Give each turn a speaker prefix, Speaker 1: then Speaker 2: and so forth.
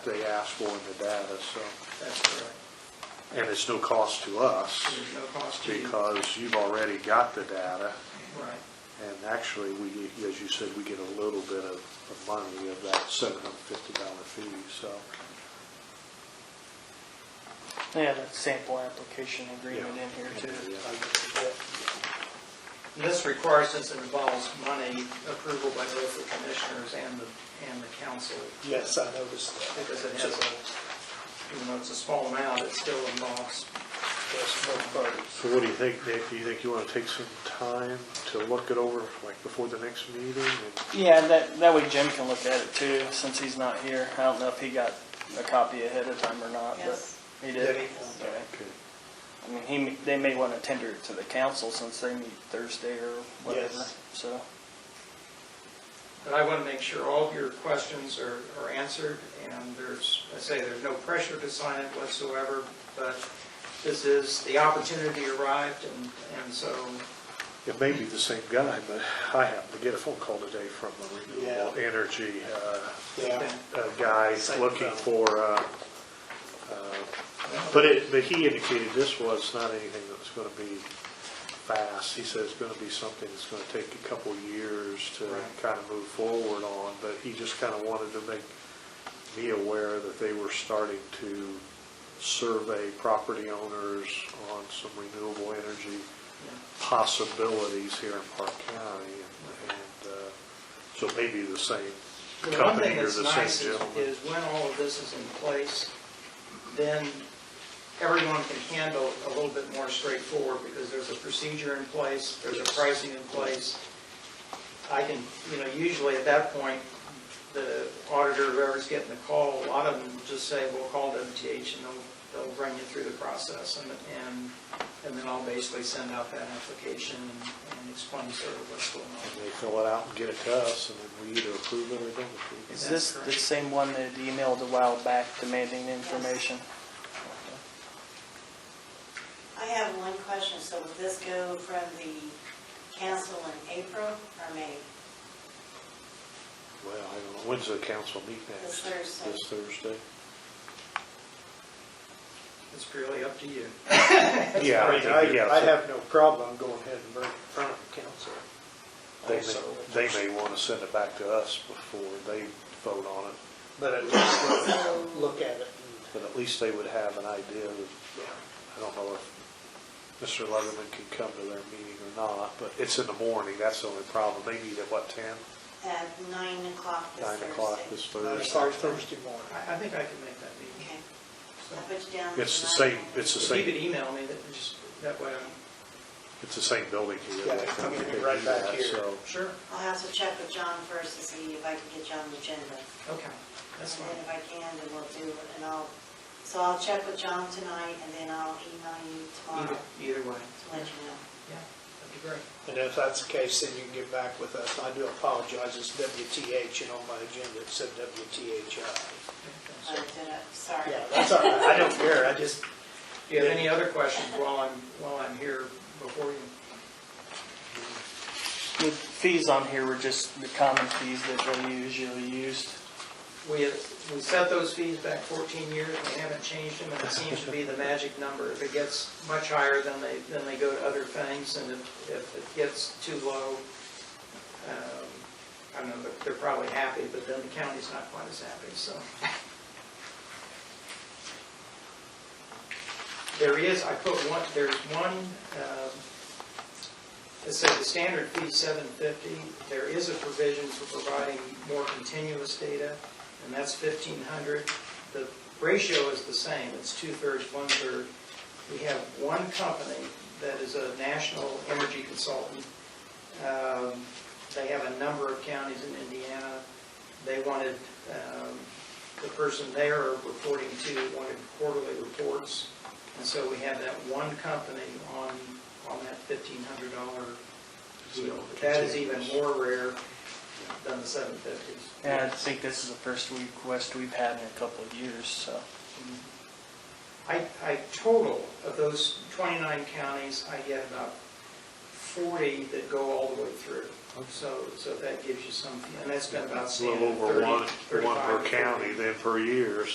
Speaker 1: they asked for in the data, so,
Speaker 2: That's correct.
Speaker 1: and it's no cost to us
Speaker 2: There's no cost to you.
Speaker 1: because you've already got the data.
Speaker 2: Right.
Speaker 1: And actually, we, as you said, we get a little bit of, of money of that seven hundred and fifty dollar fee, so.
Speaker 3: They had a sample application agreement in here too.
Speaker 1: Yeah.
Speaker 2: And This requires, since it involves money, approval by both the commissioners and the, and the council,
Speaker 4: Yes, I noticed that.
Speaker 2: because it has a, even though it's a small amount, it still involves
Speaker 4: Yes, both parties.
Speaker 1: So what do you think, Nick? Do you think you want to take some time to look it over, like before the next meeting? And-
Speaker 3: Yeah, that, that way Jim can look at it too, since he's not here. I don't know if he got a copy ahead of time or not, but
Speaker 5: Yes.
Speaker 3: he
Speaker 4: Yeah,
Speaker 3: did.
Speaker 4: he-
Speaker 3: Okay. I mean, he, may- they may want to tender it to the council since they meet Thursday or whatever,
Speaker 4: Yes.
Speaker 3: so.
Speaker 2: But I want to make sure all of your questions are, are answered, and there's, I say, there's no pressure to sign it whatsoever, but this is, the opportunity arrived, and, and so,
Speaker 1: It may be the same guy, but I happened to get a phone call today from a renewable
Speaker 4: Yeah.
Speaker 1: energy uh,
Speaker 4: Yeah,
Speaker 1: uh, guy
Speaker 4: Same
Speaker 1: looking
Speaker 4: fellow.
Speaker 1: for, uh, uh, but it, but he indicated this was not anything that was going to be fast. He said it's going to be something that's going to take a couple years to
Speaker 2: Right.
Speaker 1: kind of move forward on, but he just kind of wanted to make me aware that they were starting to survey property owners on some renewable energy possibilities here in Park County. and- And uh, so maybe the same
Speaker 2: The one
Speaker 1: company
Speaker 2: thing
Speaker 1: or
Speaker 2: that's
Speaker 1: the same
Speaker 2: nice is,
Speaker 1: gentleman.
Speaker 2: is when all of this is in place, then everyone can handle it a little bit more straightforward, because there's a procedure in place, there's a pricing in place. I can, you know, usually at that point, the auditor, whoever's getting the call, a lot of them just say, we'll call WTH, and they'll, they'll run you through the process, and, and, and then I'll basically send out that application and and explain sort of what's going on.
Speaker 1: And they fill it out and get it to us, and then we either approve it or don't approve it.
Speaker 3: Is this the same one that emailed a while back demanding information?
Speaker 5: I have one question, so will this go from the council in April or May?
Speaker 1: Well, I don't know, when's the council meet next?
Speaker 5: This Thursday.
Speaker 1: This Thursday?
Speaker 2: It's really up to you.
Speaker 1: Yeah,
Speaker 4: I mean, I, I
Speaker 1: so
Speaker 4: have no problem going ahead and bringing it in front of the council.
Speaker 1: They
Speaker 4: also.
Speaker 1: may, they may want to send it back to us before they vote on it,
Speaker 4: But at least look- look at it. and-
Speaker 1: but at least they would have an idea of
Speaker 4: yeah.
Speaker 1: I don't know if Mr. Leatherman can come to their meeting or not, but it's in the morning, that's the only problem. They meet at what, 10,
Speaker 5: At nine o'clock this
Speaker 1: 9
Speaker 5: Thursday?
Speaker 1: o'clock this
Speaker 4: It
Speaker 1: Thursday?
Speaker 4: starts uh, Thursday morning.
Speaker 2: I, I think I can make that meeting.
Speaker 5: Okay,
Speaker 2: So,
Speaker 5: I'll put you down.
Speaker 1: It's the
Speaker 5: as
Speaker 1: same,
Speaker 5: nine.
Speaker 1: it's the
Speaker 2: If you could
Speaker 1: same,
Speaker 2: email me, that, just, that way I'm,
Speaker 1: it's the same building here.
Speaker 4: Yeah, it's gonna be right back here.
Speaker 1: So,
Speaker 2: sure,
Speaker 5: I'll have to check with John first to see if I can get you on the agenda.
Speaker 2: okay, that's
Speaker 5: And then
Speaker 2: fine.
Speaker 5: if I can, then we'll do, it. and I'll, so I'll check with John tonight, and then I'll email you tomorrow
Speaker 2: Either, either way.
Speaker 5: to
Speaker 2: Yeah,
Speaker 5: let you know.
Speaker 2: that'd be great.
Speaker 4: And if that's the case, then you can get back with us. I do apologize, it's WTH, and on my agenda it said WTHI.
Speaker 5: I Uh, did it, sorry.
Speaker 4: Yeah, that's all right, I don't care, I just,
Speaker 2: Do you have any other questions while I'm, while I'm here before you?
Speaker 3: The fees on here were just the common fees that they usually used.
Speaker 2: We, we set those fees back 14 years, we haven't changed them, and it seems to be the magic number. If it gets much higher, then they, then they go to other things, and if, if it gets too low, um, I don't know, they're- they're probably happy, but then the county's not quite as happy, so. There is, I put one, there's one, um, it says the standard fee is 750. There is a provision for providing more continuous data, and that's 1,500. The ratio is the same, it's two-thirds, one-third. We have one company that is a national energy consultant. Um, They have a number of counties in Indiana. They wanted, um, the person they are reporting to wanted quarterly reports, and so we have that one company on, on that $1,500 deal. But That is even more rare than the 750s.
Speaker 3: And I think this is the first request we've had in a couple of years, so.
Speaker 2: I, I total of those 29 counties, I get about 40 that go all the way through. So, so that gives you some, and that's been about
Speaker 1: a little
Speaker 2: standard,
Speaker 1: over
Speaker 2: 30,
Speaker 1: one, one
Speaker 2: 35
Speaker 1: per
Speaker 2: to 40.
Speaker 1: county then per year,